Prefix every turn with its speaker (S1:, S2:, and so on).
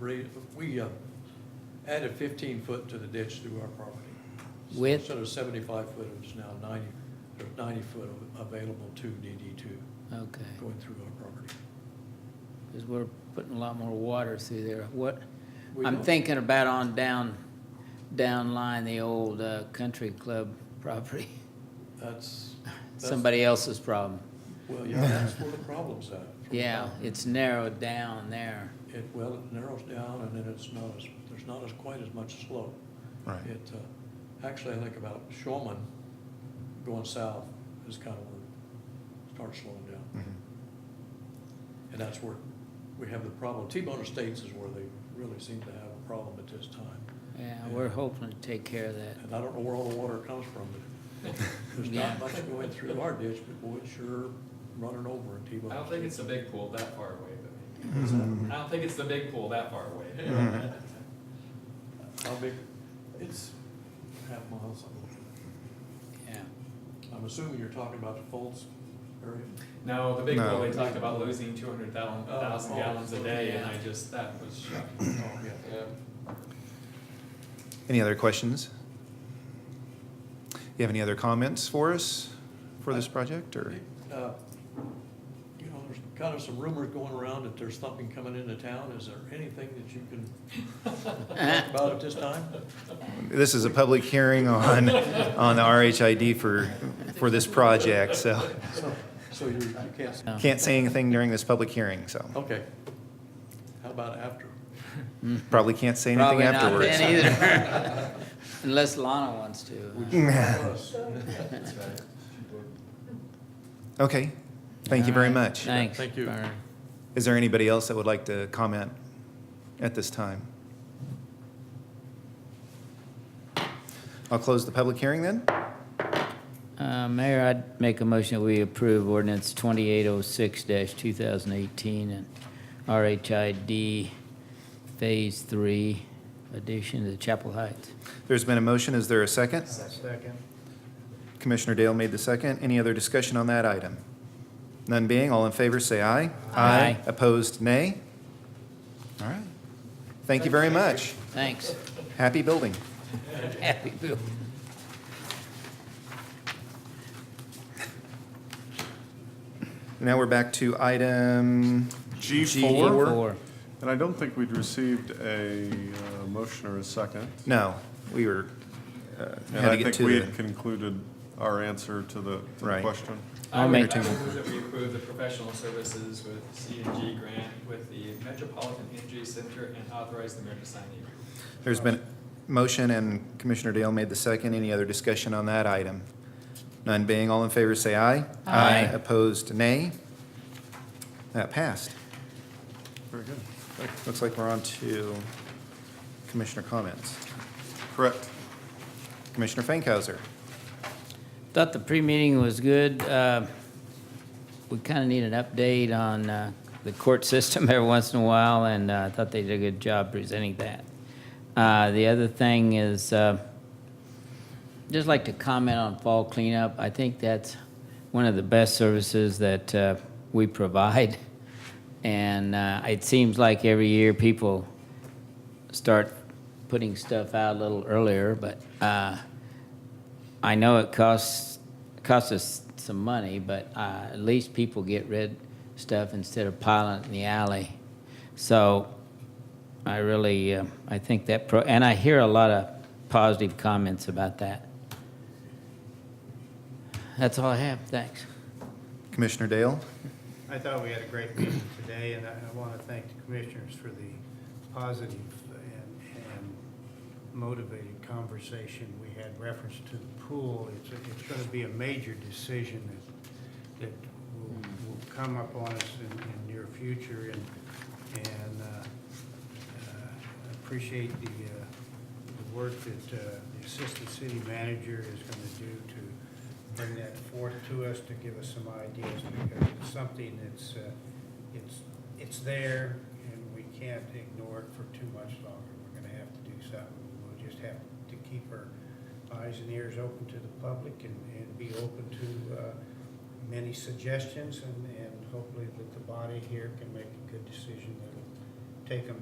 S1: re, we uh, added fifteen foot to the ditch through our property.
S2: With-
S1: Instead of seventy-five foot, it was now ninety, there's ninety foot av- available to DD two
S2: Okay,
S1: going through our property.
S2: because we're putting a lot more water through there. What,
S1: We
S2: I'm
S1: don't-
S2: thinking about on down, down line, the old uh, country club property.
S1: That's. that's-
S2: Somebody else's problem.
S1: Well, yeah, that's where the problem's at.
S2: Yeah, it's narrowed down there.
S1: It, well, it narrows down and then it's not as, there's not as quite as much slope.
S3: Right.
S1: It, uh, actually, I think about Shulman going south is kind of where it starts slowing down. And that's where we have the problem. T-Bone Estates is where they really seem to have a problem at this time.
S2: Yeah, we're hoping to take care of that.
S1: And I don't know where all the water comes from, but there's
S2: Yeah.
S1: not much going through our ditch, but boy, it's sure running over in T-Bone.
S4: I don't think
S1: Estates.
S4: it's the big pool that far away, but
S3: Mm-hmm.
S4: I don't think it's the big pool that far away.
S1: How big? It's half mile something.
S2: Yeah.
S1: I'm assuming you're talking about the Folds area?
S4: No, the big pool,
S3: No.
S4: they talked about losing two hundred thousand
S1: Oh, oh,
S4: gallons a day, and I
S2: yeah.
S4: just, that was
S1: Oh,
S4: shocking.
S1: yeah.
S4: Yeah.
S3: Any other questions? You have any other comments for us for this project or?
S1: Uh, You know, there's kind of some rumors going around that there's something coming into town. Is there anything that you can talk about at this time?
S3: This is a public hearing on, on the RHID for, for this project, so
S1: So, so you, you can't, say-
S2: No.
S3: can't say anything during this public hearing, so
S1: okay. How about after?
S3: Hmm.
S4: Mm-hmm.
S3: probably can't say anything
S2: Probably not
S3: afterwards.
S2: then either. Unless Lana wants to.
S1: Us.
S4: That's right.
S3: Okay, thank you very
S2: All right,
S3: much.
S2: Thanks.
S1: Thank you.
S2: Byron.
S3: Is there anybody else that would like to comment at this time? I'll close the public hearing then.
S2: Uh, Mayor, I'd make a motion that we approve ordinance twenty-eight oh six two thousand eighteen and RHID Phase Three addition to Chapel Heights.
S3: There's been a motion, is there a second? Second. Commissioner Dale made the second. Any other discussion on that item? None being, all in favor, say aye.
S2: Aye.
S3: Opposed, nay. All right. Thank you very much.
S2: Thanks.
S3: Happy building.
S2: Happy Bill.
S3: Now we're back to item
S5: G4,
S2: Four.
S5: and I don't think we'd received a uh, motion or a second.
S3: No, we were, uh,
S5: And
S3: had to
S5: I
S3: get
S5: think
S3: to
S5: we
S3: the,
S5: had concluded our answer to the to the
S3: Right.
S5: question.
S4: I
S2: I'll
S4: would, I
S2: make-
S4: would move that we approve the professional services with C and G grant with the Metropolitan Energy Center and authorize the mayor to sign the agreement.
S3: there's been motion and Commissioner Dale made the second. Any other discussion on that item? None being, all in favor, say aye.
S2: Aye.
S3: Opposed, nay. That passed.
S5: Very good.
S3: Looks like we're on to commissioner comments.
S5: Correct.
S3: Commissioner Fankhauser.
S2: Thought the pre-meeting was good. Uh, We kind of need an update on uh, the court system every once in a while, and uh, I thought they did a good job presenting that. Uh, The other thing is, uh, just like to comment on fall cleanup. I think that's one of the best services that uh, we provide. And uh, it seems like every year people start putting stuff out a little earlier, but uh, I know it costs costs us some money, but uh, at least people get rid stuff instead of piling it in the alley. So I really uh, I think that pro and I hear a lot of positive comments about that. That's all I have. Thanks.
S3: Commissioner Dale.
S6: I thought we had a great meeting today, and I I want to thank the commissioners for the positive and and motivated conversation we had reference to the pool. It's, it's going to be a major decision that, that will, will come upon us in, in near future, and, and uh, uh, I appreciate the, uh, the work that uh, the assistant city manager is going to do to bring that forth to us, to give us some ideas, because it's something that's, uh, it's, it's there, and we can't ignore it for too much longer. We're going to have to do something. We'll just have to keep our eyes and ears open to the public and, and be open to uh, many suggestions, and, and hopefully that the body here can make a good decision that'll take them